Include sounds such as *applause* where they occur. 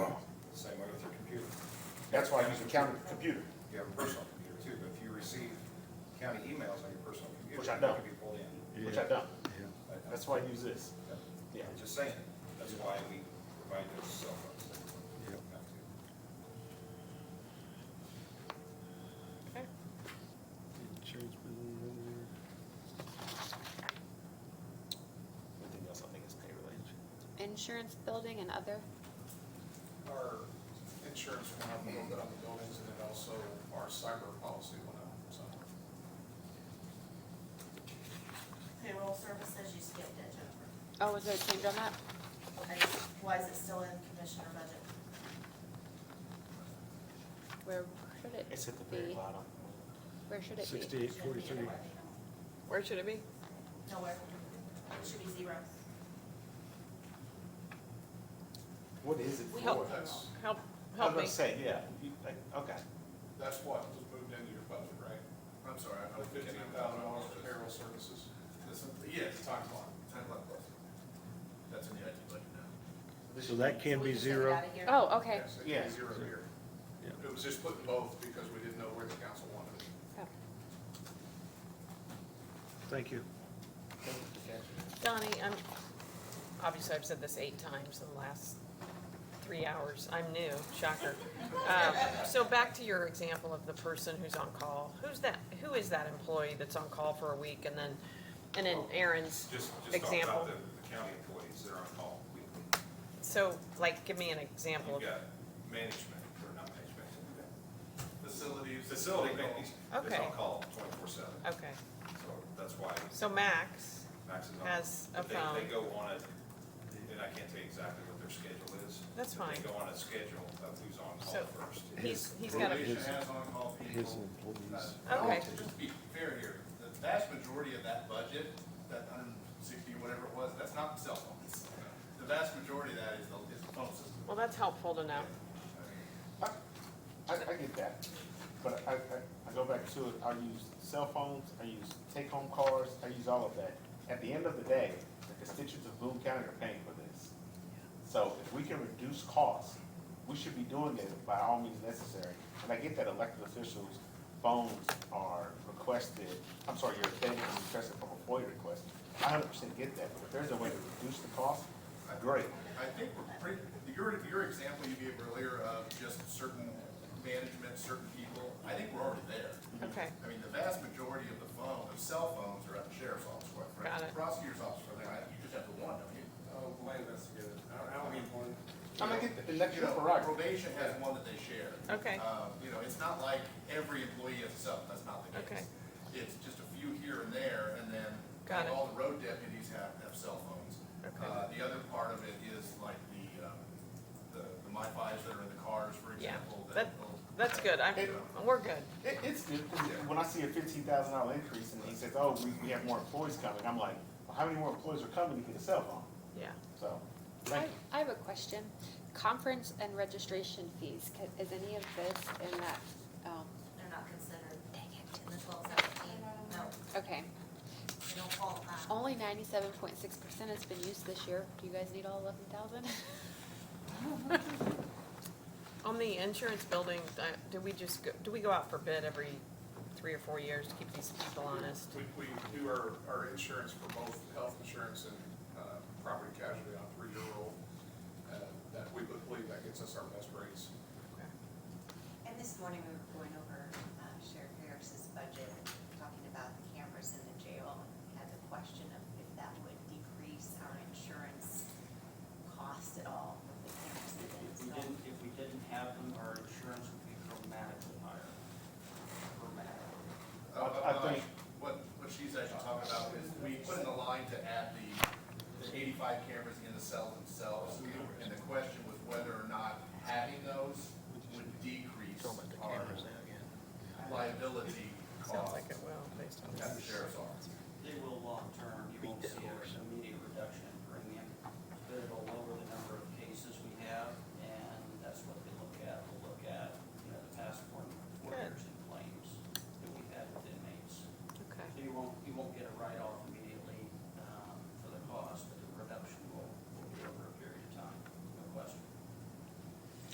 That's why I use the county computer, You have a personal computer too, but if you receive county emails on your personal computer. Which I they don't. can be pulled in. which I don't. I- I- That's why I use this. Yeah. I'm just saying, that's why we provide those cell phones. Not to- Anything else I think is pay related. Insurance, building, and other? Our insurance went up a little bit on the buildings and then also our cyber policy went up somewhat. Payroll services, you skipped it, Jennifer. Oh, was there a change on that? Okay, why is it still in commissioner budget? Where should it It's at the very be? bottom. Where should it be? Sixty-eight forty-three. Where should it be? Nowhere. It should be zero. What is it We- for? That's, Help, I was help me. gonna say, yeah, you- I- okay. that's what was moved into your budget, right? I'm sorry. The fifteen thousand dollars for payroll services. Yes. Time clock. Time clock plus. That's in the IT budget now. So that can be We just took it zero. out of here. Oh, okay. Yes, Yeah. it's zero here. Yeah. It was just putting both because we didn't know where the council wanted it. Oh. Thank you. Donnie, I'm, obviously I've said this eight times in the last three hours. I'm new, shocker. Um, So back to your example of the person who's on call. Who's that, who is that employee that's on call for a week and then, and then Aaron's Oh, Just, just talk example? about the the county employees, they're on call. We- So like, give me an example You've of, got management, or not management. Facilities. Facility management, it's Okay. on call twenty-four seven, okay. so that's why So Max Max is on. has a But they- phone. They go on a, and I can't tell you exactly what their schedule is. That's but fine. They go on a schedule of who's on So- call first. He's, he's got a, has on-call people. His employees. Uh, Okay. Just to be fair here, the vast majority of that budget, that hundred and sixty, whatever it was, that's not the cell phones. The vast majority of that is the, is the phone system. well, that's helpful to know. I, I I get that, but I, I, I go back to it, I use cell phones, I use take-home cars, I use all of that. At the end of the day, the constituents of Boone County are paying for this. So if we can reduce costs, we should be doing it by all means necessary. And I get that elected officials' phones are requested, I'm sorry, your data is requested from a FOIA request. I hundred percent get that, but if there's a way to reduce the cost, great. I think we're pretty, your, your example you gave earlier of just certain management, certain people, I think we're already there. Okay, I mean, the vast majority of the phone, of cell phones are at the sheriff's office, quite Got frankly. it. Prosecutor's office, for that, you just have the one, don't you? Oh, wait, that's good. I don't need one. I'm gonna get the You elected know, prerogative. probation has one that they share. Okay. Um, You know, it's not like every employee has a cell, that's not the Okay. case. It's just a few here and there, and then Got it. all the road deputies have, have cell phones. Okay. Uh, The other part of it is like the, um, the the MiFi's that are in the cars, for yeah, example. that, will- that's good, I'm, we're good. It, it's good, 'cause when I see a fifteen thousand dollar increase and he says, oh, we, we have more employees coming, I'm like, well, how many more employees are coming to get a cell phone? Yeah, So, I, thank you. I have a question. Conference and registration fees, ca- is any of this in that, um, They're not considered dang it, in the twelve seventeen, no, okay. they don't qualify. Only ninety-seven point six percent has been used this year. Do you guys need all eleven thousand? *laughs* on the insurance building, I- do we just, go- do we go out for bid every three or four years to keep these people honest? We, we do our, our insurance for both health insurance and, uh, property casualty on three-year roll. Uh, that, we believe that gets us our best rates. And this morning we um,